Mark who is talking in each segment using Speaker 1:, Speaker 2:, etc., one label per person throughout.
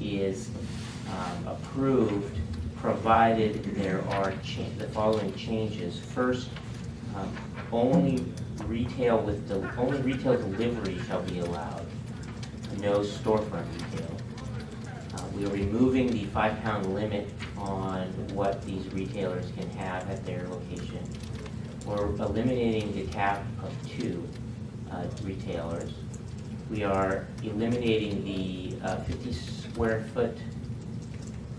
Speaker 1: is um, approved, provided there are cha- the following changes. First, um, only retail with, del- only retail delivery shall be allowed, no storefront retail. Uh, We are removing the five-pound limit on what these retailers can have at their location. We're eliminating the cap of two uh, retailers. We are eliminating the uh, 50 square foot,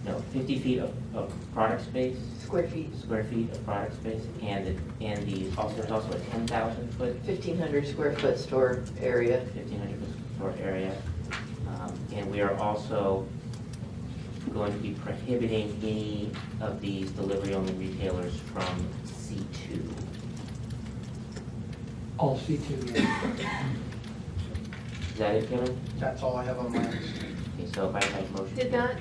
Speaker 1: no, 50 feet of of product space
Speaker 2: Square feet,
Speaker 1: square feet of product space, and, it- and the, also, there's also a ten thousand foot,
Speaker 2: fifteen hundred square foot store area.
Speaker 1: fifteen hundred foot store area. Um, And we are also going to be prohibiting any of these delivery-only retailers from C two.
Speaker 3: All C2, yeah.
Speaker 1: Is that it, Kevin?
Speaker 3: That's all I have on my list.
Speaker 1: Okay, so if I have a motion.
Speaker 4: Did not,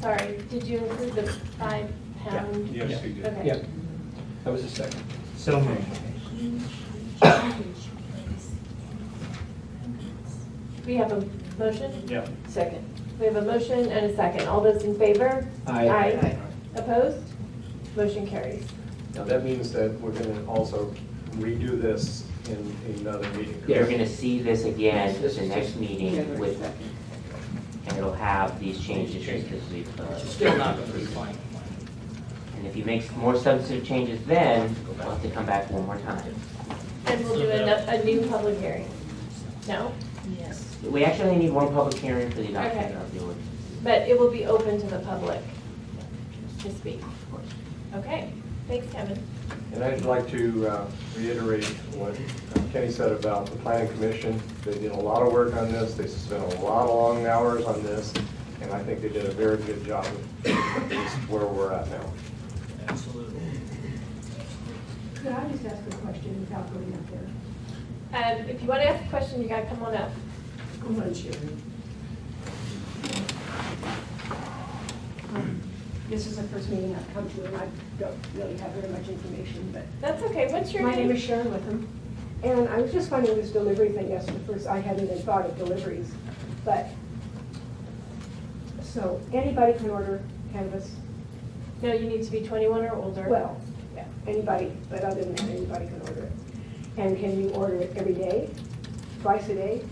Speaker 4: sorry, did you include the five pound?
Speaker 5: Yes, he did.
Speaker 4: Okay.
Speaker 3: Yeah, that was the second.
Speaker 5: So moved.
Speaker 4: We have a motion,
Speaker 5: Yeah.
Speaker 2: Second.
Speaker 4: we have a motion and a second. All those in favor? Aye. Opposed? Motion carries.
Speaker 6: Now, that means that we're gonna also redo this in another meeting. correct?
Speaker 1: You're gonna see this again at
Speaker 2: This
Speaker 1: the
Speaker 2: is
Speaker 1: next
Speaker 2: just
Speaker 1: meeting
Speaker 2: January
Speaker 1: with,
Speaker 2: 2nd.
Speaker 1: and it'll have these changes just as we've, uh,
Speaker 7: Still not gonna be final.
Speaker 1: and if you make more substantive changes then, we'll have to come back one more time.
Speaker 4: And we'll do a, a new public hearing. No?
Speaker 1: We actually only need one public hearing for the adoption
Speaker 4: Okay.
Speaker 1: of the ordinance,
Speaker 4: But it will be open to the public to speak.
Speaker 1: of course.
Speaker 4: Okay, thanks, Kevin.
Speaker 6: And I'd like to uh, reiterate what Kenny said about the planning commission. They did a lot of work on this, they spent a lot of long hours on this, and I think they did a very good job of this, where we're at now.
Speaker 7: Absolutely.
Speaker 8: Could I just ask a question without going up there?
Speaker 4: Um, if you want to ask a question, you gotta come on up.
Speaker 8: Come on, Sharon. Um, This is the first meeting I've come to, and I don't really have very much information, but.
Speaker 4: That's okay, what's your name?
Speaker 8: My name is Sharon Wickham, and I was just wondering this delivery thing, yes, at first I hadn't even thought of deliveries, but, so anybody can order cannabis,
Speaker 4: No, you need to be twenty-one or older.
Speaker 8: well, yeah, anybody, but other than that, anybody can order it. And can you order it every day, twice a day?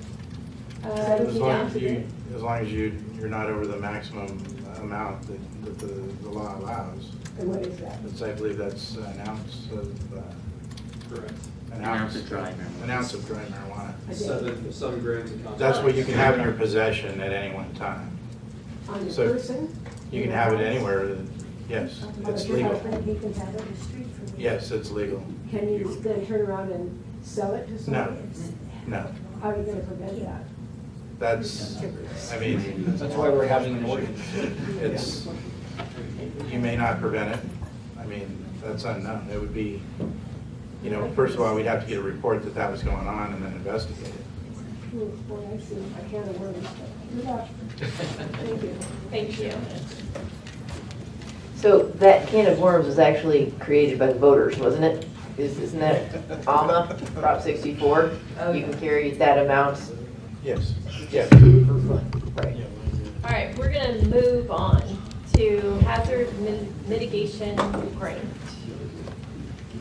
Speaker 4: Uh,
Speaker 8: As
Speaker 9: As long as
Speaker 4: yeah.
Speaker 9: you, as long as you, you're not over the maximum amount that, that the, the law allows.
Speaker 8: And what is that?
Speaker 9: That's, I believe that's an ounce of, uh.
Speaker 5: Correct.
Speaker 1: An ounce of dry marijuana.
Speaker 9: An ounce of dry marijuana.
Speaker 8: A day?
Speaker 5: Seven, seven grams of concentrate.
Speaker 9: That's what you can have in your possession at any one time.
Speaker 8: On the
Speaker 9: So-
Speaker 8: person?
Speaker 9: You can have it anywhere, that- yes, it's legal.
Speaker 8: You can have it on the street for me.
Speaker 9: Yes, it's legal.
Speaker 8: Can you then turn around and sell it to somebody?
Speaker 9: No,
Speaker 8: How are you gonna prevent that?
Speaker 9: that's, I mean.
Speaker 5: That's why we're having an ordinance.
Speaker 9: It's, you may not prevent it. I mean, that's unknown. It would be, you know, first of all, we'd have to get a report that that was going on and then investigate it.
Speaker 8: Ooh, Boy, Hmm, I see, I can't have worms, but good luck. Thank
Speaker 4: Thank
Speaker 8: you.
Speaker 4: you.
Speaker 2: So that can of worms was actually created by the voters, wasn't it? Is- Isn't that ALMA, Prop 64? You can carry that amount
Speaker 9: Yes, yes.
Speaker 2: for fun, right?
Speaker 4: All right, we're gonna move on to hazard mi- mitigation grant.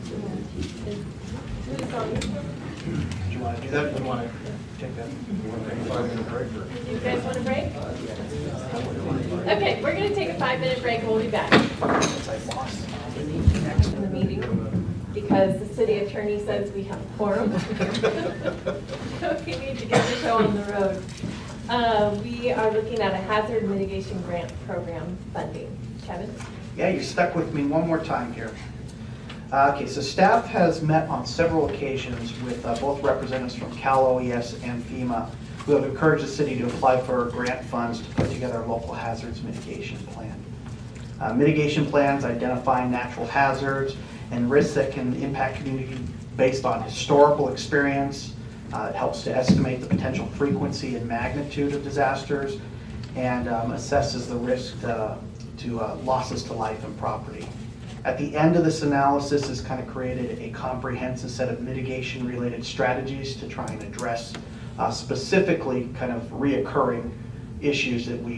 Speaker 4: Is- Who's on this one?
Speaker 9: Do you want to do that? Do you want to take that? Five-minute break or?
Speaker 4: Do you guys want a break? Okay, we're gonna take a five-minute break, we'll be back. From the meeting, because the city attorney says we have quorum. So we need to get the show on the road. Uh, we are looking at a hazard mitigation grant program funding. Kevin?
Speaker 10: Yeah, you're stuck with me one more time here. Uh, Okay, so staff has met on several occasions with uh, both representatives from Cal OES and FEMA, who have encouraged the city to apply for grant funds to put together a local hazards mitigation plan. Uh, Mitigation plans identify natural hazards and risks that can impact community based on historical experience. Uh, It helps to estimate the potential frequency and magnitude of disasters and um, assesses the risk uh, to uh, losses to life and property. At the end of this analysis is kind of created a comprehensive set of mitigation-related strategies to try and address uh, specifically kind of reoccurring issues that we